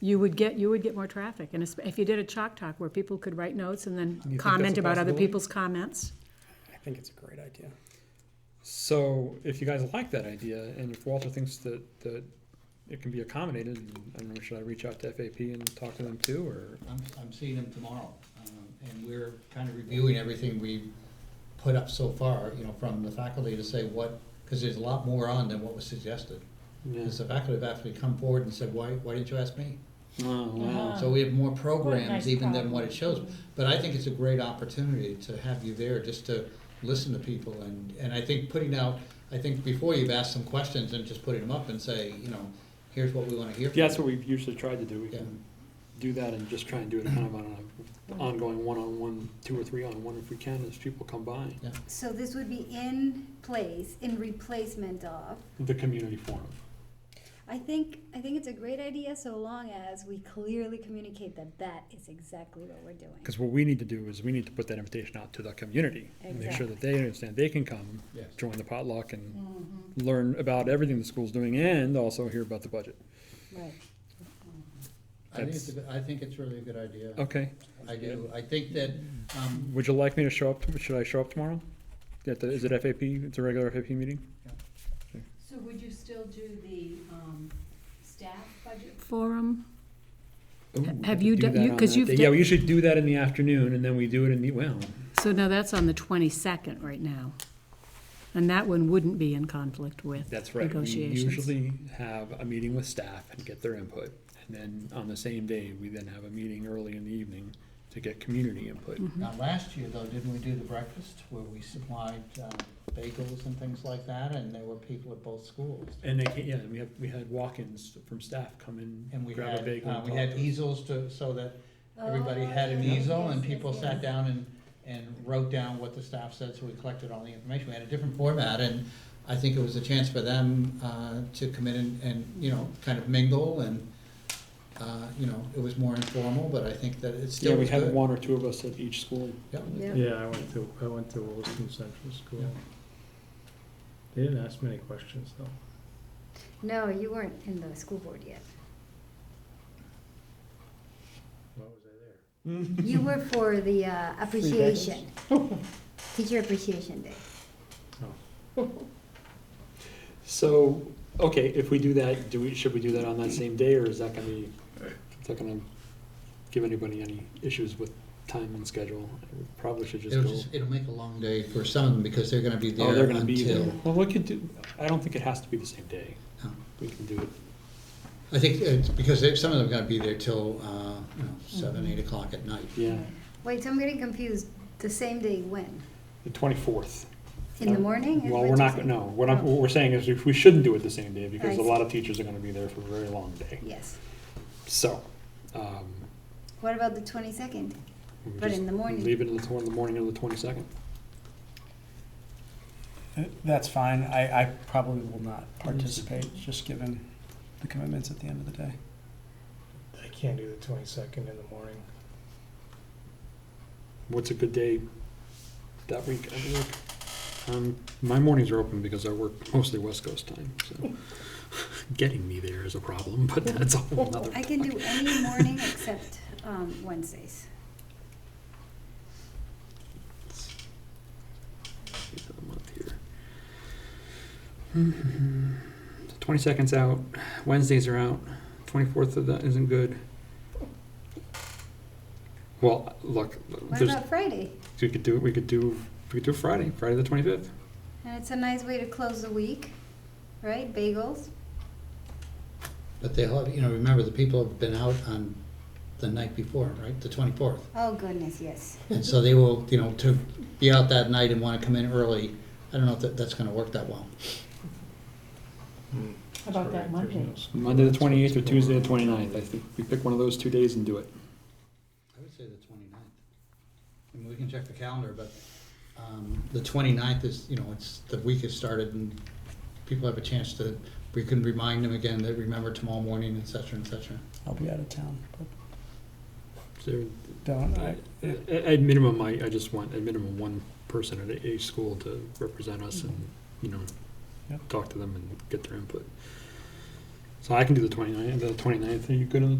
you would get, you would get more traffic. And it's- if you did a chalk talk where people could write notes and then think comment that's a about other possibility? people's comments. I think it's a great idea. So if you guys like that idea, and if Walter thinks that, that it can be accommodated, I don't know, should I reach out to FAP and talk to them too, or? I'm, I'm seeing them tomorrow, um, and we're kind of reviewing everything we've put up so far, you know, from the faculty to say what, because there's a lot more on than what was suggested. Because the faculty have actually come forward and said, why, why didn't you ask me? Oh, wow. So we have more What a nice programs even than what problem. it shows. But I think it's a great opportunity to have you there just to listen to people and, and I think putting out, I think before you've asked some questions and just putting them up and say, you know, here's what we want to hear. from Yeah, that's you. what we've usually tried to do. We can do that and just try and do it kind of on an ongoing one-on-one, two or three-on-one if we can, as people come by. So this would be in place, in replacement of. The community forum. I think, I think it's a great idea so long as we clearly communicate that that is exactly what we're doing. Because what we need to do is we need to put that invitation out to the community. and Make sure that they understand they can come, Yes. join the potluck and learn about everything the school's doing and also hear about the budget. Right. I think it's, a good- I think it's really a good idea. Okay, I do, I think that, um, would you like me to show up, should I show up tomorrow? At the, is it FAP, it's a regular FAP meeting? So would you still do the, um, staff budget? Forum, Ooh, we Have could you do done- that you- on 'cause that you've day. done- Yeah, we should do that in the afternoon and then we do it in the, well, so now that's on the twenty-second right now. And that one wouldn't be in conflict with That's right. We negotiations. usually have a meeting with staff and get their input. And then on the same day, we then have a meeting early in the evening to get community input. Hmm. now last year though, didn't we do the breakfast where we supplied um, bagels and things like that and there were people at both schools? And they, ca- yeah, and we have, we had walk-ins from staff come in, And we grab a had, bagel. uh, and we talk had to us. easels to, so that everybody Oh, had an yes, easel yes, and yes, people yes. sat down and, and wrote down what the staff said, so we collected all the information. We had a different format and I think it was a chance for them, uh, to come in and, and, you know, kind of mingle and, uh, you know, it was more informal, but I think that it Yeah, still we was had good. one or two of us at each school. Yeah. Yeah, I went to, I went to Williston Central School. Yeah. They didn't ask many questions though. No, you weren't in the school board yet. Why was I there? You were for the uh, appreciation, teacher appreciation day. So, okay, if we do that, do we, should we do that on that same day, or is that gonna be, is that gonna give anybody any issues with time and schedule? We Probably should just It'll go. just, it'll make a long day for some of them because they're gonna be there Oh, they're gonna be there. until. Oh. Well, we could do, I don't think it has to be the same day. No. We can do it. I think it's because they, some of them are gonna be there till, uh, you know, seven, eight o'clock at night. Yeah, Wait, so I'm getting confused. The same day when? the twenty-fourth. In Um, the morning? is Um, Well, what we're you're not, saying? no, what I'm, Oh, what we're saying is if we shouldn't do it the same day because I a see. lot of teachers are gonna be there for a very long day. Yes. So, um. What about the twenty-second? we But just in the morning. Leave it in the, tw- in the morning of the twenty-second. That's fine. I, I probably will not Mm-hmm. participate, just given the commitments at the end of the day. I can't do the twenty-second in the morning. What's a good day that week? I don't know. Um, my mornings are open because I work mostly West Coast time, so getting me there is a problem, but that's a whole nother. I can do any morning except um, Wednesdays. Eighth of the month here. Twenty seconds out, Wednesdays are out, twenty-fourth of that isn't good. Well, look, What there's, about Friday? we could do, we could do, we could do Friday, Friday the twenty-fifth. And it's a nice way to close the week, right? Bagels. But they'll have, you know, remember, the people have been out on the night before, right, the twenty-fourth. Oh goodness, yes. And so they will, you know, to be out that night and wanna come in early, I don't know if that, that's gonna work that well. How about that Monday? Monday the twenty-eighth or Tuesday the twenty-ninth, I think we pick one of those two days and do it. I would say the twenty-ninth. I mean, we can check the calendar, but, um, the twenty-ninth is, you know, it's, the week has started and people have a chance to, we can remind them again that remember tomorrow morning, et cetera, et cetera. I'll be out of town, but So, don't, I, At, at minimum, I, I just want, at minimum, one person at each school to represent us and, you know, Yep. talk to them and get their input. So I can do the twenty-ninth, the twenty-ninth, are you good on the